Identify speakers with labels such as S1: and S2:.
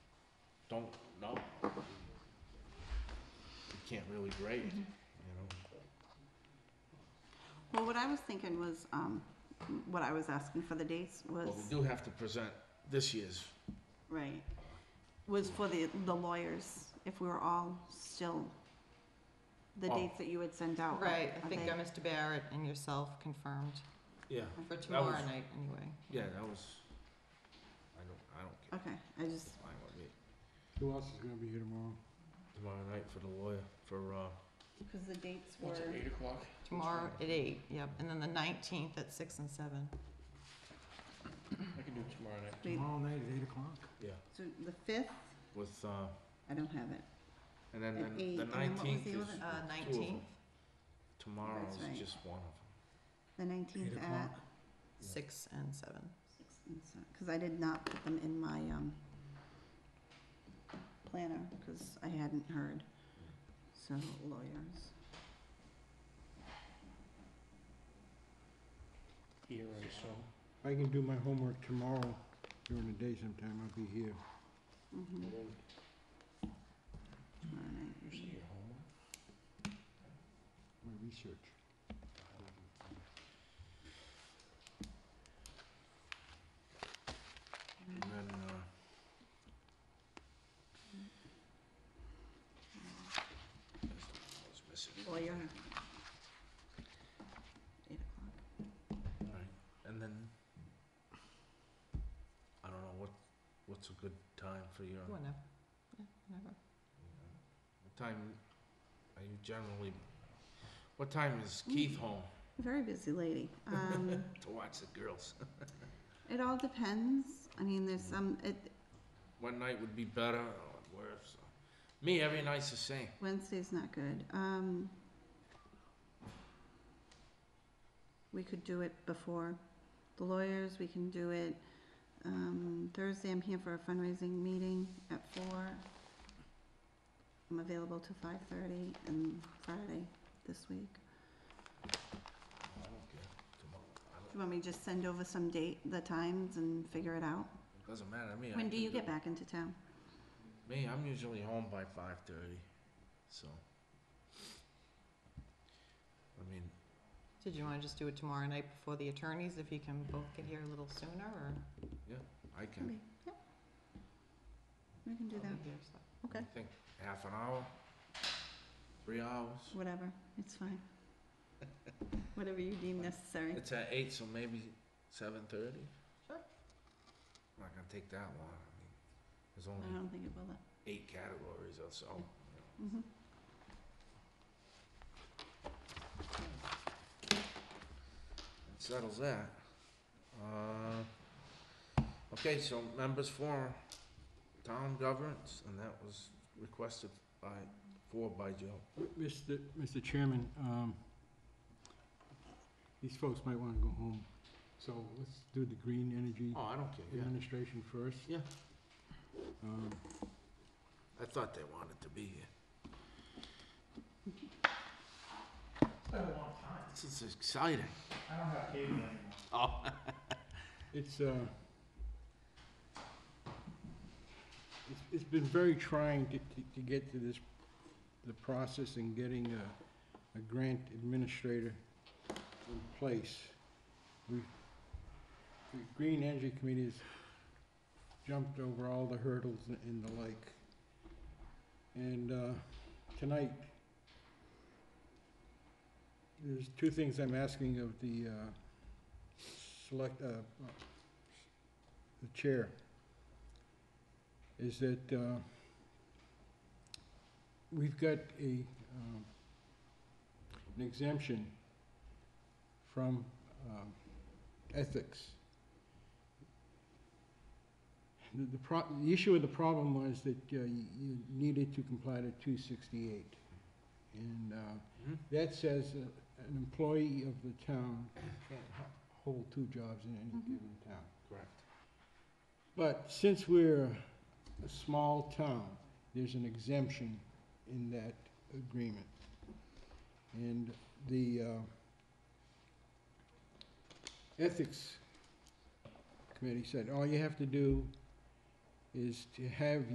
S1: don't know. You Can't really grade, you know?
S2: Well, what I was thinking was, um, what I was asking for the dates was,
S1: But we do have to present this year's,
S2: right, was for the, the lawyers, if we were all still, the
S1: Oh.
S2: dates that you had sent out.
S3: Right, I
S2: are
S3: think
S2: they-
S3: uh, Mr. Barrett and yourself confirmed
S1: yeah,
S3: for tomorrow
S1: was-
S3: night anyway.
S1: yeah, that was, I don't, I don't care,
S2: Okay, I just,
S1: fine with me.
S4: Who else is gonna be here tomorrow?
S1: Tomorrow night for the lawyer, for, uh,
S2: because the dates were,
S5: What's it, eight o'clock?
S3: Tomorrow at eight, yep, and then the nineteenth at six and seven.
S5: I can do it tomorrow night.
S2: wait,
S4: Tomorrow night at eight o'clock.
S1: yeah,
S2: so the fifth,
S1: with, uh,
S2: I don't have it,
S1: and then,
S2: At
S1: then
S2: eight,
S1: the
S2: and then what was
S1: nineteenth
S2: the
S1: is
S2: other-
S1: two
S3: Uh,
S1: of them.
S3: nineteenth,
S1: Tomorrow's
S2: That's right.
S1: just one of them.
S2: the nineteenth
S4: Eight
S2: at,
S4: o'clock.
S3: six and seven.
S2: six and seven, because I did not put them in my, um, planner, because I hadn't heard, so lawyers.
S5: Here or so.
S4: If I can do my homework tomorrow during the day sometime, I'll be here.
S5: And
S2: Mm-hmm,
S5: then
S2: tomorrow night,
S5: You
S2: usually.
S5: see your homework?
S4: My research.
S1: And then, uh, that's the one I was missing.
S2: Lawyer. Eight o'clock.
S1: Alright, and then, I don't know, what, what's a good time for your, what
S3: Whenever, yeah, whenever.
S1: time are you generally, what time is Keith home
S2: Very busy lady. Um,
S1: to watch the girls?
S2: it all depends. I mean, there's some, it,
S1: One night would be better or worse? Me, every night's the same.
S2: Wednesday's not good. Um, we could do it before the lawyers. We can do it, um, Thursday I'm here for a fundraising meeting at four. I'm available till five thirty and Friday this week.
S1: I don't care, come on, I
S2: Do you want me to just send over some date, the times and figure it out?
S1: don't, doesn't matter to me. I
S2: When do
S1: can
S2: you get back into town?
S1: Me, I'm usually home by five thirty, so. I mean,
S3: Did you wanna just do it tomorrow night before the attorneys, if you can both get here a little sooner, or?
S1: I can,
S2: Yep. We can do
S3: I'll be
S2: that,
S3: here, so.
S1: I
S2: Okay.
S1: think half an hour, three hours.
S2: whatever, it's fine. Whatever you deem necessary.
S1: It's at eight, so maybe seven thirty?
S3: Sure.
S1: Not gonna take that long, I mean, there's
S2: I
S1: only
S2: don't think it will.
S1: eight categories or so. you know.
S2: Mhm.
S1: That Settles that. Uh, okay, so members forum, town governance, and that was requested by, for by Joe.
S4: Mr. Mr. Chairman, um, these folks might wanna go home, so let's do the green energy
S1: Oh, I don't care, yeah.
S4: administration first.
S1: Yeah.
S4: Um,
S1: I thought they wanted to be here. This is exciting. I don't have cable anymore.
S4: It's, uh, it's, it's been very trying to, to, to get to this, the process in getting a, a grant administrator in place. We, the Green Energy Committee has jumped over all the hurdles and- and the like. And, uh, tonight, there's two things I'm asking of the, uh, select, uh, uh, the chair, is that, uh, we've got a, um, an exemption from, um, ethics. The, the pro, the issue of the problem was that, uh, you, you needed to comply to two sixty-eight. And, uh,
S1: Oh.
S4: that says uh, an employee of the town can't h- hold two jobs in any
S2: Mhm.
S4: given town.
S1: Correct.
S4: But since we're a small town, there's an exemption in that agreement. And the uh, Ethics Committee said, all you have to do is to have